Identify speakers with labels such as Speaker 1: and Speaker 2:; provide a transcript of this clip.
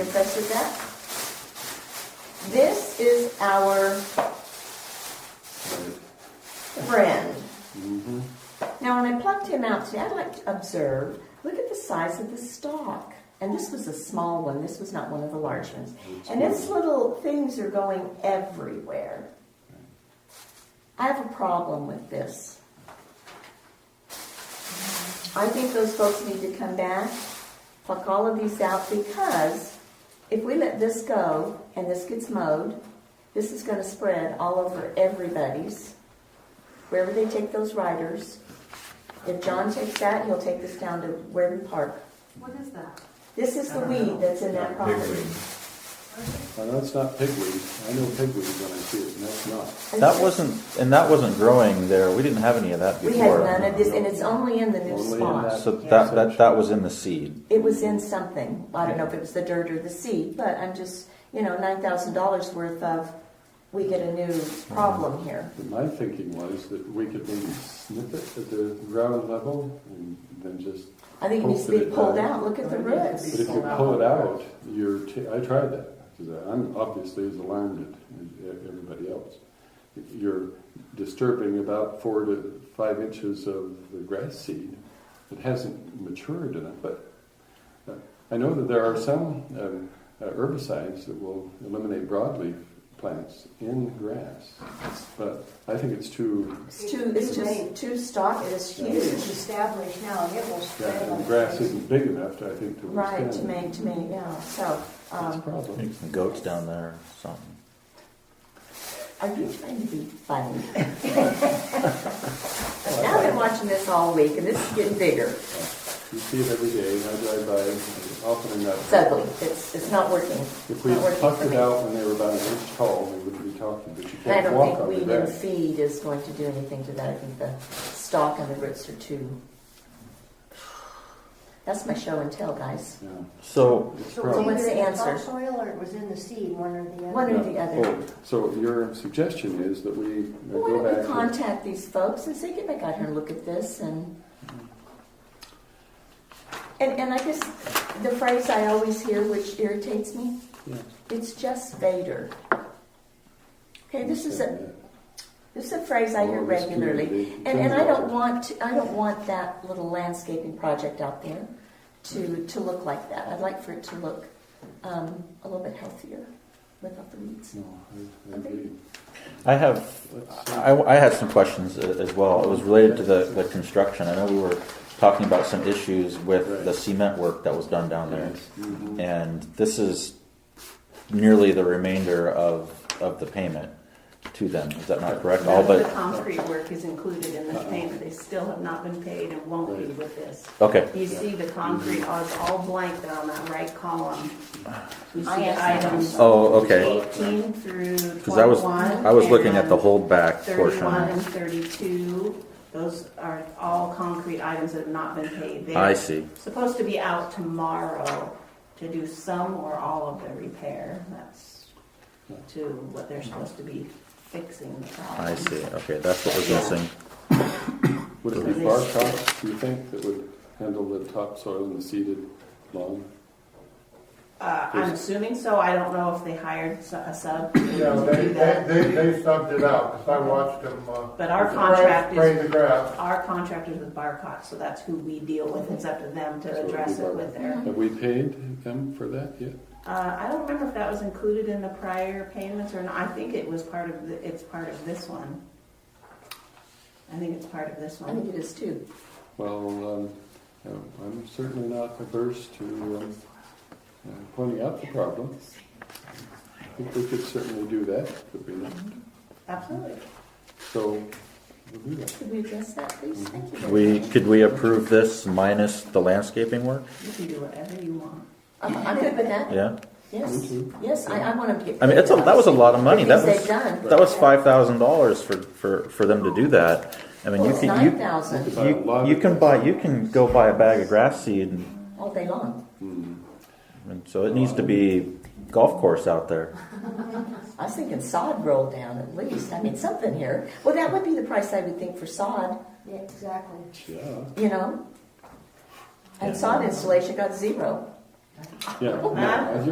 Speaker 1: Impressed with that? This is our friend. Now, when I plucked him out today, I'd like to observe, look at the size of the stalk. And this was a small one, this was not one of the large ones. And its little things are going everywhere. I have a problem with this. I think those folks need to come back, pluck all of these out, because if we let this go and this gets mowed, this is gonna spread all over everybody's. Wherever they take those riders, if John takes that, he'll take this down to Warden Park.
Speaker 2: What is that?
Speaker 1: This is the weed that's in that property.
Speaker 3: Well, that's not pigweed. I know pigweed when I see it, and that's not.
Speaker 4: That wasn't, and that wasn't growing there, we didn't have any of that
Speaker 1: We had
Speaker 4: before.
Speaker 1: none of this, and it's only in the new
Speaker 3: Only in
Speaker 1: spot.
Speaker 3: that.
Speaker 4: So that, that, that was in the seed.
Speaker 1: It was in something, I don't know if it was the dirt or the seed, but I'm just, you know, nine thousand dollars worth of, we get a new problem here.
Speaker 3: But my thinking was that we could maybe snip it at the ground level and then just,
Speaker 1: I think it needs to be pulled out, look at the
Speaker 3: but
Speaker 1: roots.
Speaker 3: if you pull it out, you're, t- I tried that, because I'm obviously as alarmed as e- everybody else. You're disturbing about four to five inches of the grass seed. It hasn't matured enough, but uh, I know that there are some um, uh, herbicides that will eliminate broadleaf plants in grass, but I think it's too
Speaker 1: It's too, it's just too stock, it is
Speaker 2: It's
Speaker 1: huge.
Speaker 2: established now, it will spread.
Speaker 3: Yeah,
Speaker 2: on
Speaker 3: the grass
Speaker 2: trees.
Speaker 3: isn't big enough, I think, to
Speaker 1: Right,
Speaker 3: withstand.
Speaker 1: to make, to me, yeah, so,
Speaker 3: That's a
Speaker 1: um,
Speaker 3: problem.
Speaker 4: Some Goats down there or something.
Speaker 1: are you trying to be funny? Now I've been watching this all week, and this is getting bigger.
Speaker 3: You see it every day, and I drive by often
Speaker 1: It's
Speaker 3: enough.
Speaker 1: ugly, it's, it's not working.
Speaker 3: If we
Speaker 1: Not working
Speaker 3: plucked
Speaker 1: for
Speaker 3: it
Speaker 1: me.
Speaker 3: out when they were about an inch tall, we wouldn't be talking, but you
Speaker 1: I
Speaker 3: can't
Speaker 1: don't
Speaker 3: walk
Speaker 1: think
Speaker 3: on the
Speaker 1: weed and
Speaker 3: grass.
Speaker 1: feed is going to do anything to that. I think the stalk and the roots are too. That's my show and tell, guys.
Speaker 3: Yeah,
Speaker 4: So,
Speaker 3: it's
Speaker 2: So it
Speaker 3: a
Speaker 2: was
Speaker 1: So
Speaker 3: problem.
Speaker 1: what's the
Speaker 2: either in
Speaker 1: answer?
Speaker 2: Topsoil or it was in the seed, one or the other.
Speaker 1: One or the other.
Speaker 3: Oh, So your suggestion is that we uh,
Speaker 1: Well,
Speaker 3: go
Speaker 1: Why don't we
Speaker 3: back, and-
Speaker 1: contact these folks and see, get back out here and look at this and. And, and I guess the phrase I always hear, which irritates me,
Speaker 3: Yeah.
Speaker 1: it's just Vader. Okay, this is a,
Speaker 3: Yeah.
Speaker 1: this is a phrase I hear
Speaker 3: Or this
Speaker 1: regularly.
Speaker 3: community
Speaker 1: And, and I don't
Speaker 3: control.
Speaker 1: want, to- I don't want that little landscaping project out there to, to look like that. I'd like for it to look um, a little bit healthier without the weeds.
Speaker 3: No, I- I agree.
Speaker 4: I have,
Speaker 3: Let's see.
Speaker 4: I, I had some questions a- as well, it was related to the, the construction. I know we were talking about some issues with the cement work that was done down there.
Speaker 3: Mhm.
Speaker 4: And this is nearly the remainder of, of the payment to them, is that not correct?
Speaker 5: None
Speaker 4: All
Speaker 5: of the
Speaker 4: but,
Speaker 5: concrete work is included in this payment, they still have not been paid and won't be with this.
Speaker 4: okay,
Speaker 5: You see the concrete is all blank there on that right column. You
Speaker 1: I
Speaker 5: see
Speaker 1: asked them.
Speaker 5: items
Speaker 4: oh, okay.
Speaker 5: eighteen through
Speaker 4: Because I was,
Speaker 5: twenty-one.
Speaker 4: I was looking at the
Speaker 5: and
Speaker 4: holdback portion.
Speaker 5: Thirty-one and thirty-two, those are all concrete items that have not been paid. They're
Speaker 4: I see.
Speaker 5: Supposed to be out tomorrow to do some or all of the repair, that's to what they're supposed to be fixing the problem.
Speaker 4: I see. Okay, that's what was missing.
Speaker 3: Would it be Barcock, do you think, that would handle the topsoil and the seeded lawn?
Speaker 5: Uh, I'm assuming so. I don't know if they hired s- a sub to
Speaker 6: Yeah, they,
Speaker 5: do
Speaker 6: they,
Speaker 5: that.
Speaker 6: they they subbed it out, 'cause I watched them, uh.
Speaker 5: But our contract
Speaker 6: Spray
Speaker 5: is,
Speaker 6: the grass.
Speaker 5: our contract is with Barcott, so that's who we deal with. It's up to them
Speaker 3: So it
Speaker 5: to
Speaker 3: would be
Speaker 5: address it
Speaker 3: Barcott.
Speaker 5: with their.
Speaker 3: Have we paid them for that yet?
Speaker 5: Uh, I don't remember if that was included in the prior payments or not. I think it was part of, the- it's part of this one. I think it's part of this
Speaker 1: I think it
Speaker 5: one.
Speaker 1: is too.
Speaker 3: Well, um, uh, I'm certainly not averse to um, uh, pointing out the problem. I think we could certainly do that, could we not?
Speaker 5: Absolutely.
Speaker 3: So, we'll do that.
Speaker 1: Could we address that, please? Thank you. very
Speaker 4: Mm-hmm. We,
Speaker 1: much.
Speaker 4: could we approve this minus the landscaping work?
Speaker 5: You can do whatever you want.
Speaker 1: I'm I'm good with that.
Speaker 4: Yeah?
Speaker 3: Me
Speaker 1: Yes,
Speaker 3: too.
Speaker 1: yes, I, I want them to get.
Speaker 4: I mean, it's a, that was a lot of money. That
Speaker 1: Things they've
Speaker 4: was,
Speaker 1: done.
Speaker 4: that was five thousand dollars for, for, for them to do that. I mean,
Speaker 1: Well,
Speaker 4: you
Speaker 1: it's
Speaker 4: can,
Speaker 1: nine
Speaker 4: you,
Speaker 1: thousand
Speaker 3: Buy a lot
Speaker 4: you,
Speaker 3: of-
Speaker 4: you can buy, you can go buy a bag of grass seed and,
Speaker 1: all day long.
Speaker 4: and so it needs to be golf course out there.
Speaker 1: I was thinking sod rolled down at least. I mean, something here. Well, that would be the price I would think for sod,
Speaker 2: Yeah, exactly.
Speaker 3: Yeah,
Speaker 1: you know? And
Speaker 4: Yeah.
Speaker 1: sod installation got zero.
Speaker 3: yeah. no, I-